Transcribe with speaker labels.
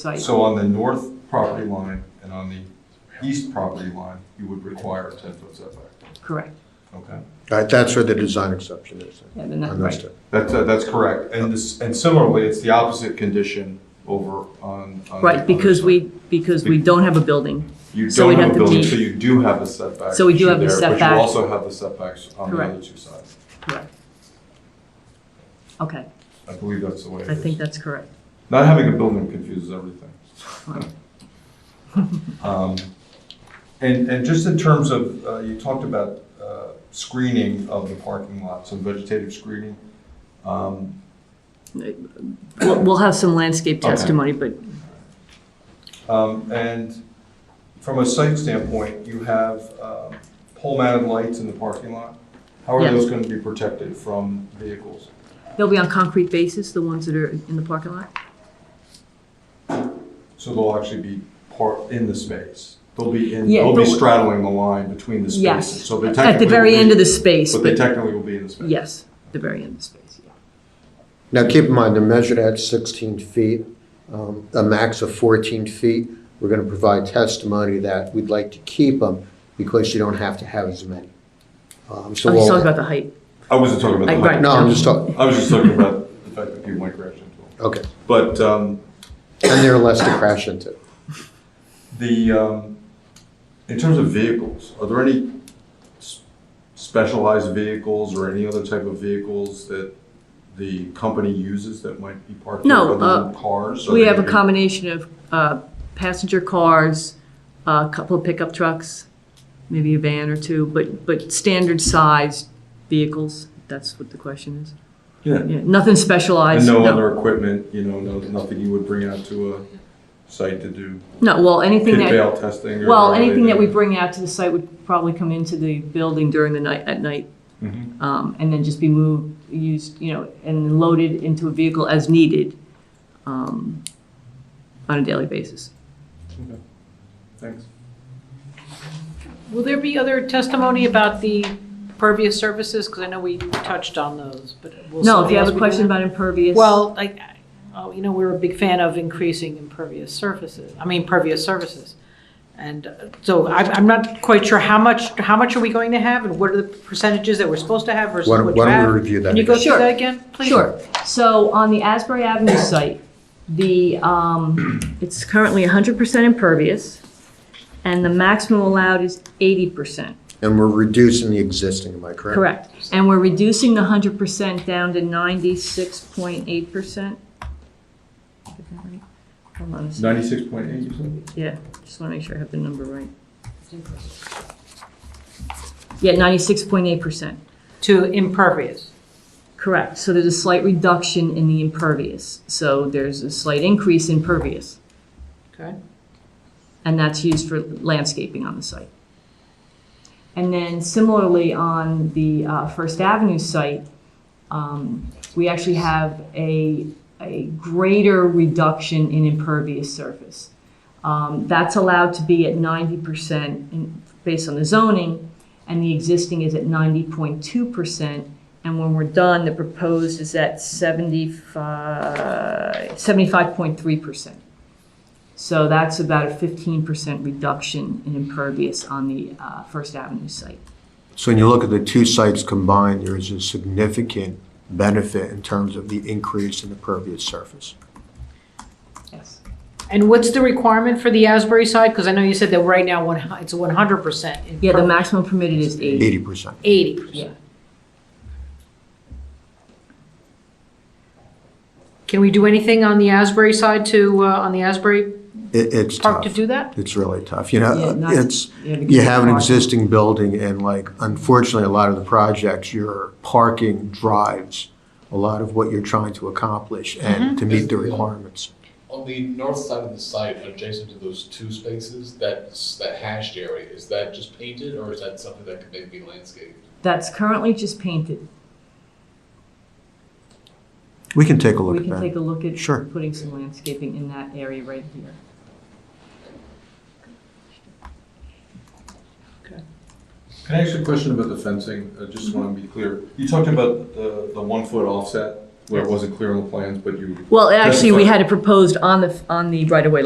Speaker 1: site.
Speaker 2: So on the north property line and on the east property line, you would require a ten-foot setback,
Speaker 1: Correct.
Speaker 2: okay?
Speaker 3: Right, that's where the design exception is.
Speaker 1: Yeah, then that's right.
Speaker 3: Understood.
Speaker 2: That's, uh, that's correct, and this, and similarly, it's the opposite condition over on. on the-
Speaker 1: Right, because we, because we don't have a building.
Speaker 2: You
Speaker 1: so
Speaker 2: don't
Speaker 1: we'd
Speaker 2: have a
Speaker 1: have to
Speaker 2: building,
Speaker 1: be-
Speaker 2: so you do have the setback.
Speaker 1: So we do
Speaker 2: issue
Speaker 1: have the
Speaker 2: there, But
Speaker 1: setback.
Speaker 2: you also have the setbacks on the other
Speaker 1: Correct.
Speaker 2: two sides.
Speaker 1: Correct. Okay,
Speaker 2: I believe that's the way it
Speaker 1: I think
Speaker 2: is.
Speaker 1: that's correct.
Speaker 2: Not having a building confuses everything. Um, And, and just in terms of, uh, you talked about uh, screening of the parking lot, some vegetative screening. Um,
Speaker 1: We'll, we'll have some landscape
Speaker 2: Okay.
Speaker 1: testimony, but
Speaker 2: um, And from a site standpoint, you have um, pole-mounted lights in the parking lot. How are
Speaker 1: Yes.
Speaker 2: those going to be protected from vehicles?
Speaker 1: they'll be on concrete bases, the ones that are in the parking lot?
Speaker 2: So they'll actually be part, in the space? They'll be in,
Speaker 1: Yeah,
Speaker 2: they'll be
Speaker 1: they'll-
Speaker 2: straddling the line between the
Speaker 1: Yes.
Speaker 2: spaces. So they
Speaker 1: At the
Speaker 2: technically
Speaker 1: very
Speaker 2: will
Speaker 1: end
Speaker 2: be-
Speaker 1: of the space,
Speaker 2: But they
Speaker 1: but,
Speaker 2: technically will be in the space.
Speaker 1: yes, the very end of the space, yeah.
Speaker 3: Now, keep in mind, they're measured at 16 feet, um, a max of 14 feet. We're going to provide testimony that we'd like to keep them because you don't have to have as many.
Speaker 1: I'm
Speaker 3: Um, So
Speaker 1: just
Speaker 3: we'll-
Speaker 1: talking about the height.
Speaker 2: I wasn't talking about the
Speaker 1: Like,
Speaker 2: height.
Speaker 1: right.
Speaker 3: No, I'm just talking,
Speaker 2: I was just talking about the fact that people might crash into them.
Speaker 3: okay.
Speaker 2: But um,
Speaker 3: And they're less to crash into.
Speaker 2: the, um, in terms of vehicles, are there any s- specialized vehicles or any other type of vehicles that the company uses that might be parked there
Speaker 1: No, uh,
Speaker 2: other than cars? Are
Speaker 1: We
Speaker 2: they
Speaker 1: have a
Speaker 2: gonna be-
Speaker 1: combination of uh, passenger cars, a couple of pickup trucks, maybe a van or two, but, but standard sized vehicles, that's what the question is.
Speaker 2: Yeah,
Speaker 1: Yeah, nothing
Speaker 2: and
Speaker 1: specialized,
Speaker 2: no
Speaker 1: no.
Speaker 2: other equipment, you know, no- nothing you would bring out to a site to do
Speaker 1: No, well, anything
Speaker 2: pit
Speaker 1: that,
Speaker 2: bail testing? or
Speaker 1: well,
Speaker 2: whatever they
Speaker 1: anything that
Speaker 2: do?
Speaker 1: we bring out to the site would probably come into the building during the night, at night,
Speaker 2: Mhm.
Speaker 1: um, and then just be moved, used, you know, and loaded into a vehicle as needed um, on a daily basis.
Speaker 2: Thanks.
Speaker 4: Will there be other testimony about the pervious surfaces? Because I know we touched on those, but
Speaker 1: No,
Speaker 4: will
Speaker 1: if
Speaker 4: somebody
Speaker 1: you
Speaker 4: else
Speaker 1: have a
Speaker 4: be doing
Speaker 1: question
Speaker 4: that?
Speaker 1: about impervious.
Speaker 4: Well, like, oh, you know, we're a big fan of increasing impervious surfaces, I mean, pervious surfaces. And uh, so I'm, I'm not quite sure how much, how much are we going to have and what are the percentages that we're supposed to have versus
Speaker 3: Why don't-
Speaker 4: what you
Speaker 3: why don't we
Speaker 4: have?
Speaker 3: review that
Speaker 4: Can you go
Speaker 1: again?
Speaker 4: through that
Speaker 1: Sure.
Speaker 4: again, please?
Speaker 1: Sure. So on the Asbury Avenue site, the, um, it's currently 100% impervious, and the maximum allowed is 80%.
Speaker 3: And we're reducing the existing, am I correct?
Speaker 1: Correct. And we're reducing the 100% down to 96.8%. Hold on a second.
Speaker 2: Ninety-six point eight, you said?
Speaker 1: Yeah, just want to make sure I have the number right. Yeah, 96.8%.
Speaker 4: To impervious.
Speaker 1: Correct. So there's a slight reduction in the impervious. So there's a slight increase in pervious.
Speaker 4: Okay.
Speaker 1: and that's used for landscaping on the site. And then similarly, on the uh, First Avenue site, um, we actually have a, a greater reduction in impervious surface. Um, That's allowed to be at 90% in- based on the zoning, and the existing is at 90.2%. And when we're done, the proposed is at 75, 75.3%. So that's about a fifteen percent reduction in impervious on the uh, First Avenue site.
Speaker 3: So when you look at the two sites combined, there is a significant benefit in terms of the increase in the pervious surface.
Speaker 1: Yes.
Speaker 4: And what's the requirement for the Asbury side? Because I know you said that right now, one hu- it's 100% in
Speaker 1: Yeah, the maximum permitted is eight.
Speaker 3: 80%.
Speaker 4: 80%.
Speaker 1: Yeah.
Speaker 4: Can we do anything on the Asbury side to, uh, on the Asbury
Speaker 3: It- It's
Speaker 4: Park
Speaker 3: tough.
Speaker 4: to do that?
Speaker 3: It's really tough. You
Speaker 1: Yeah,
Speaker 3: know,
Speaker 1: not-
Speaker 3: it's,
Speaker 1: yeah, because
Speaker 3: you have an
Speaker 1: parking.
Speaker 3: existing building and like, unfortunately, a lot of the projects, your parking drives a lot of what you're trying to accomplish
Speaker 1: Mm-hmm.
Speaker 3: and to meet the requirements.
Speaker 5: On the north side of the site, adjacent to those two spaces, that's, that hashed area, is that just painted or is that something that could maybe be landscaped?
Speaker 1: That's currently just painted.
Speaker 3: We can take a look
Speaker 1: We
Speaker 3: at
Speaker 1: can take a
Speaker 3: that.
Speaker 1: look at
Speaker 3: Sure.
Speaker 1: putting some landscaping in that area right here.
Speaker 2: Can I ask you a question about the fencing? I just want to be clear. You talked about the, the one foot offset where it wasn't clear on the plans, but you
Speaker 1: Well, actually, we
Speaker 2: That's
Speaker 1: had
Speaker 2: fine.
Speaker 1: it proposed on the, on the right-of-way